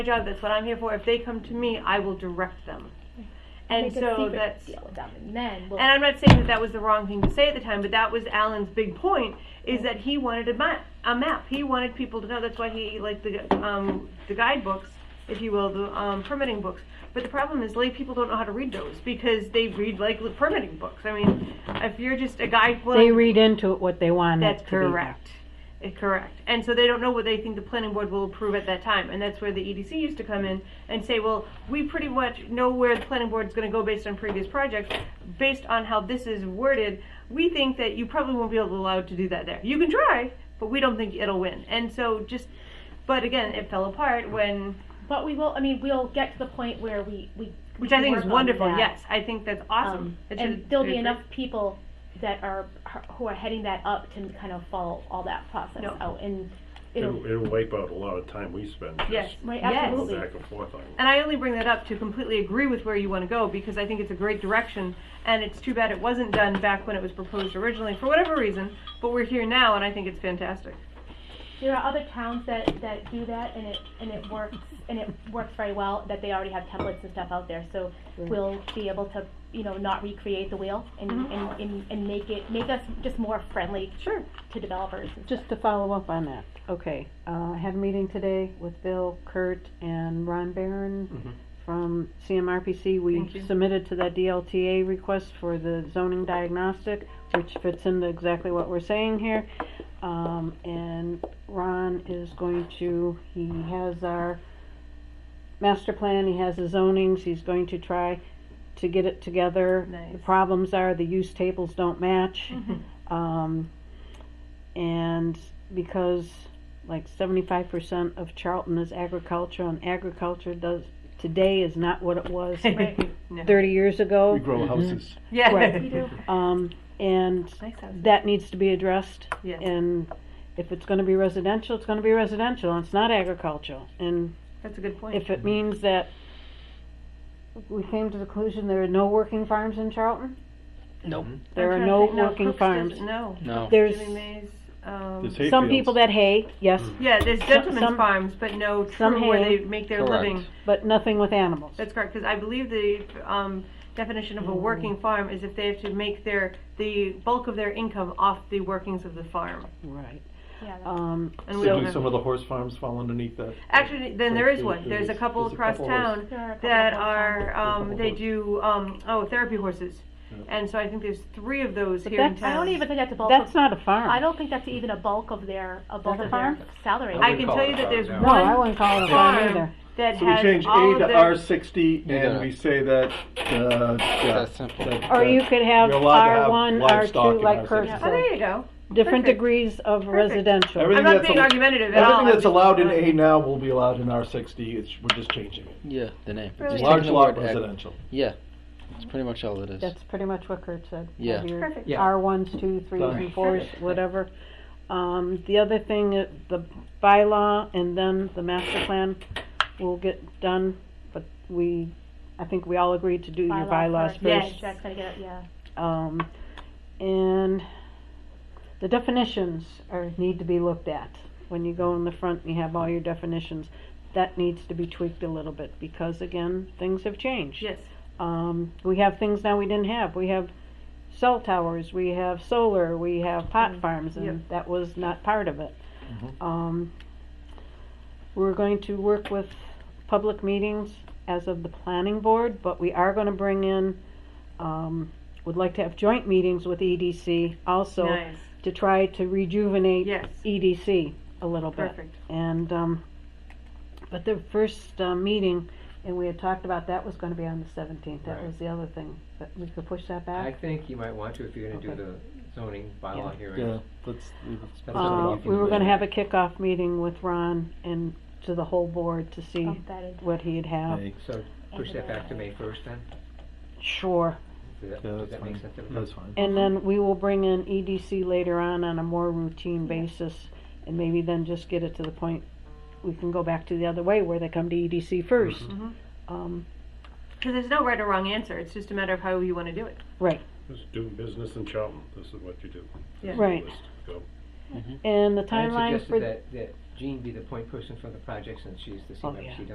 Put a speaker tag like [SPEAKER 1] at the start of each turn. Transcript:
[SPEAKER 1] my job, that's what I'm here for. If they come to me, I will direct them. And
[SPEAKER 2] Make a
[SPEAKER 1] so
[SPEAKER 2] secret
[SPEAKER 1] that's,
[SPEAKER 2] deal with them, and then we'll-
[SPEAKER 1] and I'm not saying that that was the wrong thing to say at the time, but that was Alan's big point, is that he wanted a map, a map. He wanted people to know, that's why he, liked the, um, the guidebooks, if you will, the, um, permitting books. But the problem is lay people don't know how to read those, because they read like the permitting books. I mean, if you're just a guy.
[SPEAKER 3] They read into it what they want.
[SPEAKER 1] That's
[SPEAKER 3] it to be.
[SPEAKER 1] correct. Eh, Correct. And so they don't know what they think the planning board will approve at that time. And that's where the EDC used to come in and say, well, we pretty much know where the planning board's gonna go based on previous projects. Based on how this is worded, we think that you probably won't be able- allowed to do that there. You can try, but we don't think it'll win. And so just, but again, it fell apart when,
[SPEAKER 2] but we will. I mean, we'll get to the point where we we we
[SPEAKER 1] which I
[SPEAKER 2] can
[SPEAKER 1] think is
[SPEAKER 2] work on
[SPEAKER 1] wonderful.
[SPEAKER 2] that.
[SPEAKER 1] Yes, I think that's awesome.
[SPEAKER 2] Um,
[SPEAKER 1] That
[SPEAKER 2] and
[SPEAKER 1] should-
[SPEAKER 2] there'll be
[SPEAKER 1] should-
[SPEAKER 2] enough people that are who are heading that up to kind of follow all that process
[SPEAKER 1] No.
[SPEAKER 2] out, and it'll
[SPEAKER 4] It'll, it'll wipe out a lot of time we spend
[SPEAKER 1] Yes.
[SPEAKER 4] just
[SPEAKER 2] right
[SPEAKER 1] Yes.
[SPEAKER 4] going
[SPEAKER 2] absolutely.
[SPEAKER 4] back and forth on it.
[SPEAKER 1] And I only bring that up to completely agree with where you want to go because I think it's a great direction. And it's too bad it wasn't done back when it was proposed originally for whatever reason. But we're here now, and I think it's fantastic.
[SPEAKER 2] There are other towns that, that do that and it and it works and it works very well that they already have templates and stuff out there. So we'll be able to you know not recreate the wheel and,
[SPEAKER 1] Mm-hmm.
[SPEAKER 2] and, and, and make it make us just more friendly
[SPEAKER 1] Sure.
[SPEAKER 2] to developers. and
[SPEAKER 3] Just to follow up on that, okay, uh, I had a meeting today with Bill, Kurt, and Ron Barron from CMRPC.
[SPEAKER 1] Thank
[SPEAKER 3] We
[SPEAKER 1] you.
[SPEAKER 3] submitted to that DLTA request for the zoning diagnostic, which fits into exactly what we're saying here. Um, and Ron is going to, he has our master plan, he has his zonings, he's going to try to get it together.
[SPEAKER 1] Nice. Mm-hmm.
[SPEAKER 3] The problems are the use tables don't match. Um, and because like 75% of Charlton is agriculture, and agriculture does today is not what it was
[SPEAKER 1] No.
[SPEAKER 3] 30 years ago.
[SPEAKER 5] We grow houses.
[SPEAKER 1] Yeah.
[SPEAKER 3] Right.
[SPEAKER 2] stuff. We do.
[SPEAKER 3] Um, and
[SPEAKER 1] Nice house.
[SPEAKER 3] that needs to be addressed.
[SPEAKER 1] Yes.
[SPEAKER 3] And if it's going to be residential, it's going to be residential, and it's not agricultural. And
[SPEAKER 1] That's a good point.
[SPEAKER 3] if it means that we came to the conclusion there are no working farms in Charlton,
[SPEAKER 6] Nope.
[SPEAKER 3] there
[SPEAKER 1] I'm trying to
[SPEAKER 3] are no
[SPEAKER 1] think-
[SPEAKER 3] working
[SPEAKER 1] Crooks
[SPEAKER 3] farms.
[SPEAKER 1] doesn't- No.
[SPEAKER 6] No.
[SPEAKER 3] There's
[SPEAKER 1] Giving Mays, um,
[SPEAKER 5] There's hay
[SPEAKER 3] some
[SPEAKER 5] fields. Mm.
[SPEAKER 3] people that hay, yes,
[SPEAKER 1] yeah, there's gentlemen's
[SPEAKER 3] some-
[SPEAKER 1] farms, but no true
[SPEAKER 3] some
[SPEAKER 1] where
[SPEAKER 3] hay.
[SPEAKER 1] they make their
[SPEAKER 6] Correct.
[SPEAKER 1] living.
[SPEAKER 3] but nothing with animals.
[SPEAKER 1] That's correct, because I believe the um, definition of a working
[SPEAKER 3] Mm.
[SPEAKER 1] farm is if they have to make their the bulk of their income off the workings of the farm.
[SPEAKER 3] Right.
[SPEAKER 2] Yeah, that's-
[SPEAKER 3] Um,
[SPEAKER 1] And
[SPEAKER 5] So
[SPEAKER 1] we don't
[SPEAKER 5] do
[SPEAKER 1] have-
[SPEAKER 5] some of the horse farms fall underneath that?
[SPEAKER 1] Actually, then
[SPEAKER 5] So
[SPEAKER 1] there is
[SPEAKER 5] there-
[SPEAKER 1] one. There's a
[SPEAKER 5] there's-
[SPEAKER 1] couple
[SPEAKER 5] there's a
[SPEAKER 1] across
[SPEAKER 5] couple
[SPEAKER 1] town
[SPEAKER 5] horse-
[SPEAKER 2] There are a couple
[SPEAKER 1] that
[SPEAKER 2] across town.
[SPEAKER 1] are, um,
[SPEAKER 5] Couple
[SPEAKER 1] they
[SPEAKER 5] horse.
[SPEAKER 1] do, um, oh, therapy horses.
[SPEAKER 5] Yeah.
[SPEAKER 1] And so I think there's three of those
[SPEAKER 3] But
[SPEAKER 1] here in
[SPEAKER 3] that's-
[SPEAKER 1] town.
[SPEAKER 2] I don't even think that's a bulk
[SPEAKER 3] that's
[SPEAKER 2] of,
[SPEAKER 3] not a farm.
[SPEAKER 2] I don't think that's even a bulk of their a bulk
[SPEAKER 3] That's a
[SPEAKER 2] of
[SPEAKER 3] farm?
[SPEAKER 2] their salary.
[SPEAKER 1] I can tell you that there's
[SPEAKER 3] No, I
[SPEAKER 1] one
[SPEAKER 3] wouldn't call it a farm
[SPEAKER 1] farm
[SPEAKER 3] either.
[SPEAKER 1] that
[SPEAKER 5] So we
[SPEAKER 1] has
[SPEAKER 5] change
[SPEAKER 1] all
[SPEAKER 5] A
[SPEAKER 1] of
[SPEAKER 5] to R
[SPEAKER 1] their,
[SPEAKER 5] sixty
[SPEAKER 6] got
[SPEAKER 5] and
[SPEAKER 6] it.
[SPEAKER 5] we say that, uh, yeah.
[SPEAKER 6] That's simple.
[SPEAKER 5] that- uh,
[SPEAKER 3] Or you
[SPEAKER 5] that
[SPEAKER 3] could have
[SPEAKER 5] you're allowed to have
[SPEAKER 3] R one, R
[SPEAKER 5] livestock
[SPEAKER 3] two,
[SPEAKER 5] in
[SPEAKER 3] like
[SPEAKER 5] our
[SPEAKER 3] Kurt
[SPEAKER 5] city.
[SPEAKER 1] oh, there
[SPEAKER 3] said,
[SPEAKER 1] you go.
[SPEAKER 3] different
[SPEAKER 1] Perfect.
[SPEAKER 3] degrees of residential.
[SPEAKER 1] I'm
[SPEAKER 5] Everything
[SPEAKER 1] not
[SPEAKER 5] that's
[SPEAKER 1] being
[SPEAKER 5] al-
[SPEAKER 1] argumentative at all.
[SPEAKER 5] Everything
[SPEAKER 1] I'm
[SPEAKER 5] that's
[SPEAKER 1] just-
[SPEAKER 5] allowed in A now will be allowed in R sixty, it's, we're just changing it.
[SPEAKER 6] Yeah, the name.
[SPEAKER 1] Really?
[SPEAKER 6] Just
[SPEAKER 5] Large
[SPEAKER 6] taking the
[SPEAKER 5] lot
[SPEAKER 6] word ag-
[SPEAKER 5] residential.
[SPEAKER 6] Yeah, that's pretty much all it is.
[SPEAKER 3] That's pretty much what Kurt said.
[SPEAKER 6] Yeah.
[SPEAKER 3] Have your
[SPEAKER 1] Perfect.
[SPEAKER 7] Yeah.
[SPEAKER 3] R ones, two, threes
[SPEAKER 5] Done.
[SPEAKER 3] and fours, whatever. Um, the other thing, uh, the bylaw and then the master plan will get done, but we, I think we all agreed to do your bylaws
[SPEAKER 2] Yeah,
[SPEAKER 3] first.
[SPEAKER 1] Yes.
[SPEAKER 2] Jack's gonna get it, yeah.
[SPEAKER 3] Um, and the definitions are, need to be looked at. When you go in the front and you have all your definitions, that needs to be tweaked a little bit because again, things have changed.
[SPEAKER 1] Yes,
[SPEAKER 3] Um, we have things now we didn't have. We have cell towers, we have solar, we have pot
[SPEAKER 1] Mm,
[SPEAKER 3] farms, and
[SPEAKER 1] Yep.
[SPEAKER 3] that was not part of it. Um, we're going to work with public meetings as of the planning board, but we are going to bring in, um, would like to have joint meetings with EDC also
[SPEAKER 1] nice,
[SPEAKER 3] to try to rejuvenate
[SPEAKER 1] Yes.
[SPEAKER 3] EDC a little bit.
[SPEAKER 1] perfect.
[SPEAKER 3] And, um, but the first, uh, meeting, and we had talked about that was gonna be on the seventeenth, that
[SPEAKER 7] Right.
[SPEAKER 3] was the other thing, but we could push that
[SPEAKER 7] I
[SPEAKER 3] back.
[SPEAKER 7] think you might want to if you're gonna do
[SPEAKER 3] Okay.
[SPEAKER 7] the zoning
[SPEAKER 3] Yeah.
[SPEAKER 7] bylaw
[SPEAKER 5] Yeah,
[SPEAKER 7] hearing.
[SPEAKER 5] let's,
[SPEAKER 7] That's
[SPEAKER 3] Uh,
[SPEAKER 7] something you
[SPEAKER 3] we
[SPEAKER 7] can
[SPEAKER 3] were
[SPEAKER 7] do.
[SPEAKER 3] gonna have a kickoff meeting with Ron and to the whole board to see
[SPEAKER 2] Bump that into-
[SPEAKER 3] what he'd have.
[SPEAKER 5] May.
[SPEAKER 7] So push that back to May first then?
[SPEAKER 3] Sure,
[SPEAKER 7] Does that,
[SPEAKER 5] yeah,
[SPEAKER 7] does
[SPEAKER 5] that's
[SPEAKER 7] that make
[SPEAKER 5] fine,
[SPEAKER 7] sense? everybody?
[SPEAKER 5] that's fine.
[SPEAKER 3] and then we will bring in EDC later on on a more routine basis, and maybe then just get it to the point, we can go back to the other way where they come to EDC first. Um,
[SPEAKER 1] Because there's no right or wrong answer. It's just a matter of how you want to do it.
[SPEAKER 3] right,
[SPEAKER 4] Just doing business in Charlton, this is what you do. This is the
[SPEAKER 3] Right.
[SPEAKER 4] list. Go.
[SPEAKER 3] and the
[SPEAKER 7] I had
[SPEAKER 3] timeline for.
[SPEAKER 7] suggested that, that Jean be the point person for the project since she's the
[SPEAKER 3] Oh, yeah.
[SPEAKER 7] CMRPC